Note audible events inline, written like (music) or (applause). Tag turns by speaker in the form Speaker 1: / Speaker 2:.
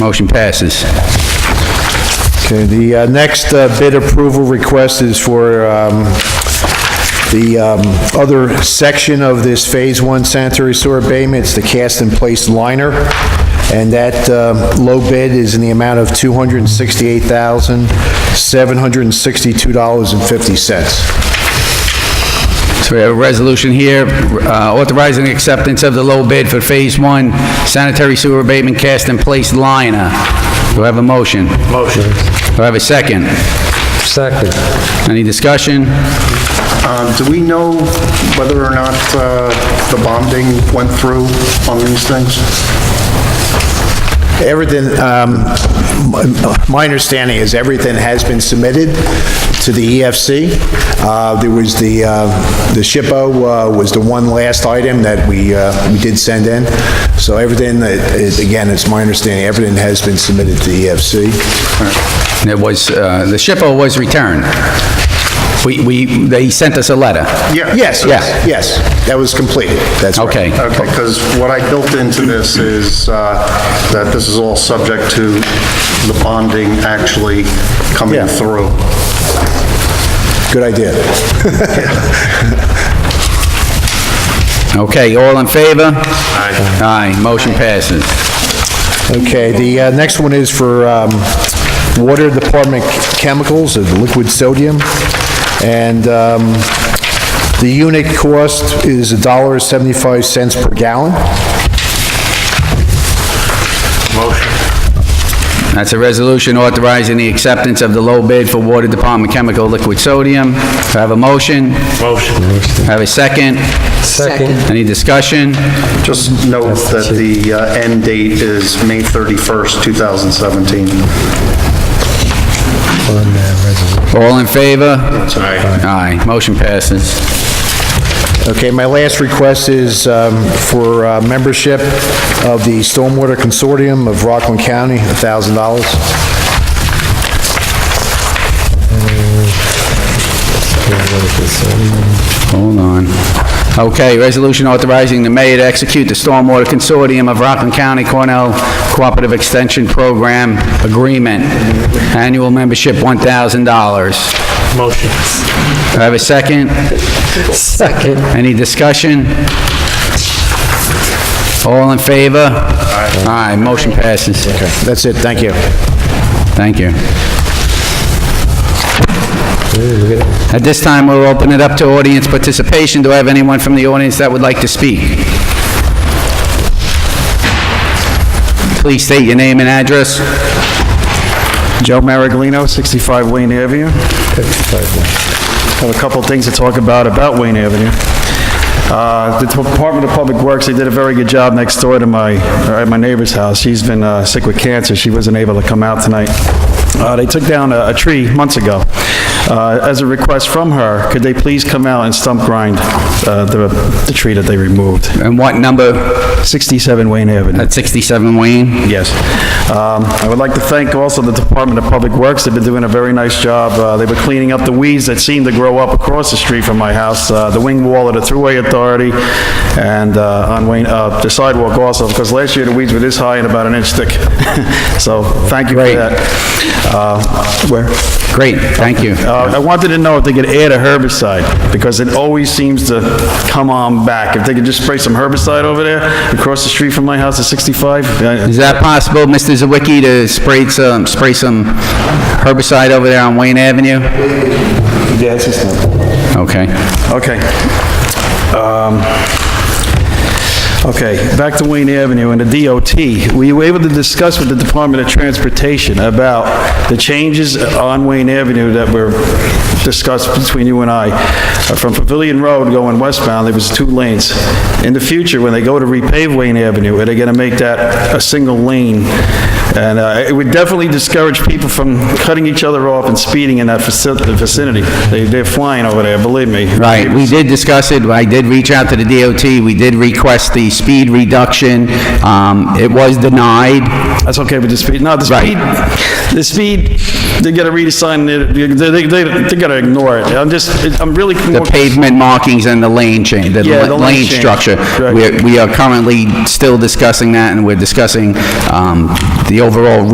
Speaker 1: Motion passes.
Speaker 2: Okay, the uh, next uh, bid approval request is for um, the um, other section of this Phase 1 sanitary sewer abatement, it's the cast-in-place liner, and that uh, low bid is in the amount of $268,762.50.
Speaker 1: So we have a resolution here uh, authorizing acceptance of the low bid for Phase 1 sanitary sewer abatement cast in place liner. Do I have a motion? Motion. Do I have a second?
Speaker 3: Second.
Speaker 1: Any discussion?
Speaker 4: Um, Do we know whether or not uh, the bonding went through on these things?
Speaker 2: Everything, um, my- my understanding is everything has been submitted to the EFC. Uh, There was the, uh, the SHPO uh, was the one last item that we, uh, we did send in. So everything, that is- again, it's my understanding, everything has been submitted to the E EFC.
Speaker 1: There was, uh, the SHPO was returned. We, we, they sent us a letter.
Speaker 4: Yeah.
Speaker 2: Yes,
Speaker 1: Yeah.
Speaker 2: yes, yes, that was completed, that's right.
Speaker 1: Okay.
Speaker 4: Okay, because what I built into this is uh, that this is all subject to the bonding actually coming
Speaker 2: Yeah.
Speaker 4: through.
Speaker 2: Good idea.
Speaker 1: Okay, all in favor? Aye. Aye, motion passes.
Speaker 2: Okay, the uh, next one is for um, Water Department Chemicals, of liquid sodium, and um, the unit cost is $1.75 per gallon.
Speaker 1: That's a resolution authorizing the acceptance of the low bid for Water Department Chemical Liquid Sodium. Do I have a motion? Motion. Have a second?
Speaker 3: Second.
Speaker 1: Any discussion?
Speaker 4: Just note that the uh, end date is May 31st, 2017.
Speaker 1: All in favor?
Speaker 4: Aye.
Speaker 1: Aye, motion passes.
Speaker 2: Okay, my last request is um, for uh, membership of the Stormwater Consortium of Rockland County, $1,000.
Speaker 1: Hold on. Okay, resolution authorizing the mayor to execute the Stormwater Consortium of Rockland County Cornell Cooperative Extension Program Agreement. Annual membership, $1,000. Motion. Do I have a second?
Speaker 3: Second.
Speaker 1: Any discussion? All in favor? Aye. motion passes.
Speaker 2: That's it, thank you.
Speaker 1: Thank you. At this time, we'll open it up to audience participation. Do I have anyone from the audience that would like to speak? Please state your name and address.
Speaker 5: Joe Maraglino, 65 Wayne Avenue. Have a couple things to talk about, about Wayne Avenue. Uh, The Department of Public Works, they did a very good job next door to my, or at my neighbor's house. She's been uh, sick with cancer, she wasn't able to come out tonight. Uh, They took down a a tree months ago. Uh, As a request from her, could they please come out and stump grind uh, the the tree that they removed?
Speaker 1: And what number?
Speaker 5: 67 Wayne Avenue.
Speaker 1: At 67 Wayne?
Speaker 5: Yes. Um, I would like to thank also the Department of Public Works. They've been doing a very nice job. Uh, They were cleaning up the weeds that seemed to grow up across the street from my house, uh, the wing wall of the Thruway Authority, and uh, on Wayne, uh, the sidewalk also, because last year the weeds were this high and about an inch thick. (laughs) So, thank you for
Speaker 1: Great.
Speaker 5: that. Uh, Where?
Speaker 1: Great, thank you.
Speaker 5: Uh, I wanted to know if they could add a herbicide, because it always seems to come on back. If they could just spray some herbicide over there, across the street from my house at 65, uh,
Speaker 1: Is that possible, Mr. Zawicki, to spray some, spray some herbicide over there on Wayne Avenue?
Speaker 5: Yeah, it's just
Speaker 1: Okay.
Speaker 5: Okay. Um, Okay, back to Wayne Avenue and the DOT. Were you able to discuss with the Department of Transportation about the changes on Wayne Avenue that were discussed between you and I? Uh, From Pavilion Road going westbound, there was two lanes. In the future, when they go to repave Wayne Avenue, are they going to make that a single lane? And uh, it would definitely discourage people from cutting each other off and speeding in that faci- vicinity. They- They're flying over there, believe me.
Speaker 1: Right, we did discuss it, I did reach out to the DOT, we did request the speed reduction, um, it was denied.
Speaker 5: That's okay with the speed. No, the speed, the speed, they gotta read a sign, they, they, they, they gotta ignore it. I'm just, I'm really.
Speaker 1: The pavement markings and the lane change, the
Speaker 5: Yeah, the lane
Speaker 1: lane
Speaker 5: change,
Speaker 1: structure.
Speaker 5: right.
Speaker 1: We're- We are currently still discussing that, and we're discussing, um, the the overall